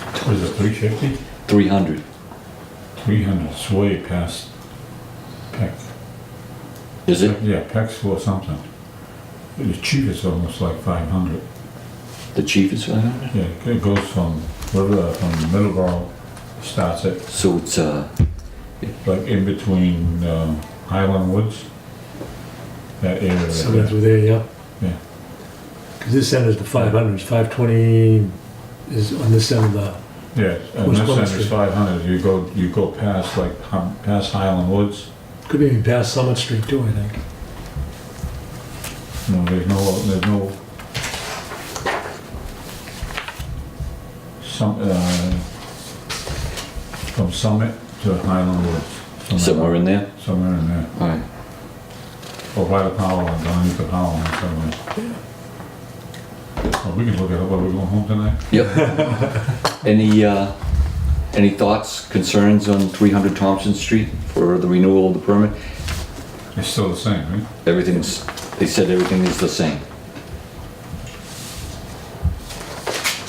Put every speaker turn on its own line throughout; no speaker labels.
Three fifty?
three hundred.
Three hundred, it's way past Peck.
Is it?
Yeah, Peck's for something. The cheapest almost like five hundred.
The chief is five hundred?
Yeah, it goes from, whatever, from Middleborough, starts at,
So it's, uh,
like in between, um, Highland Woods. That area right
Somewhere
there.
through there, yeah.
Yeah.
Because this end is the five hundreds, five twenty is on this end of the,
Yes, and
Who's
this
Plymouth
end is
Street?
five hundred, you go, you go past like, hum- past Highland Woods,
could be even past Summit Street too, I think.
no, there's no, there's no. Some, uh, from Summit to Highland Woods.
somewhere in there?
Somewhere in there,
All right.
or by the power line, underneath the power line somewhere. Oh, we can look at it, while we are going home tonight?
Yep. Any, uh, any thoughts, concerns on three hundred Thompson Street for the renewal of the permit?
It's still the same, right?
Everything's, they said everything is the same.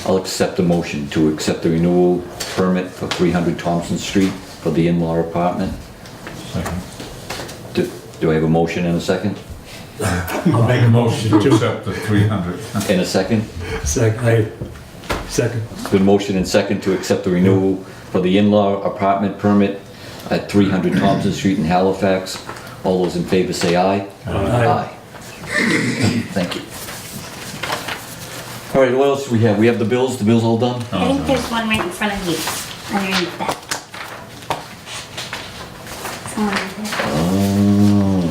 I'll accept the motion to accept the renewal permit for three hundred Thompson Street for the in-law apartment.
Second.
Do, do I have a motion and a second?
I'll make a motion
To
to,
accept the three hundred.
And a second?
sec, I, second,
Been motion and second to accept the renewal for the in-law apartment permit at 300 Thompson Street in Halifax. All those in favor say aye.
Aye.
Thank you. All right, what else do we have? We have the bills, the bills all done?
Oh,
I think
no.
there's one right in front of you, underneath that. Someone did
Oh,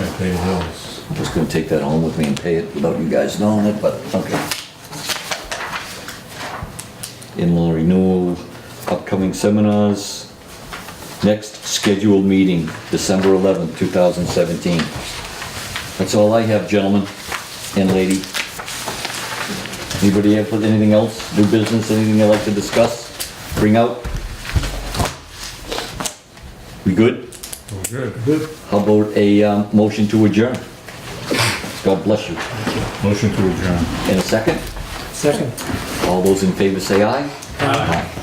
Yeah, pay the bills.
I was gonna take that home with me and pay it without you guys knowing it, but okay. In-law renewal, upcoming seminars. Next scheduled meeting, December 11th, 2017. That's all I have, gentlemen and lady. Anybody have anything else, new business, anything you'd like to discuss, bring out? We good?
Well, good.
good,
How about a um, motion to adjourn? God bless you.
Motion to adjourn.
In a second,
second.
all those in favor say aye. Aye.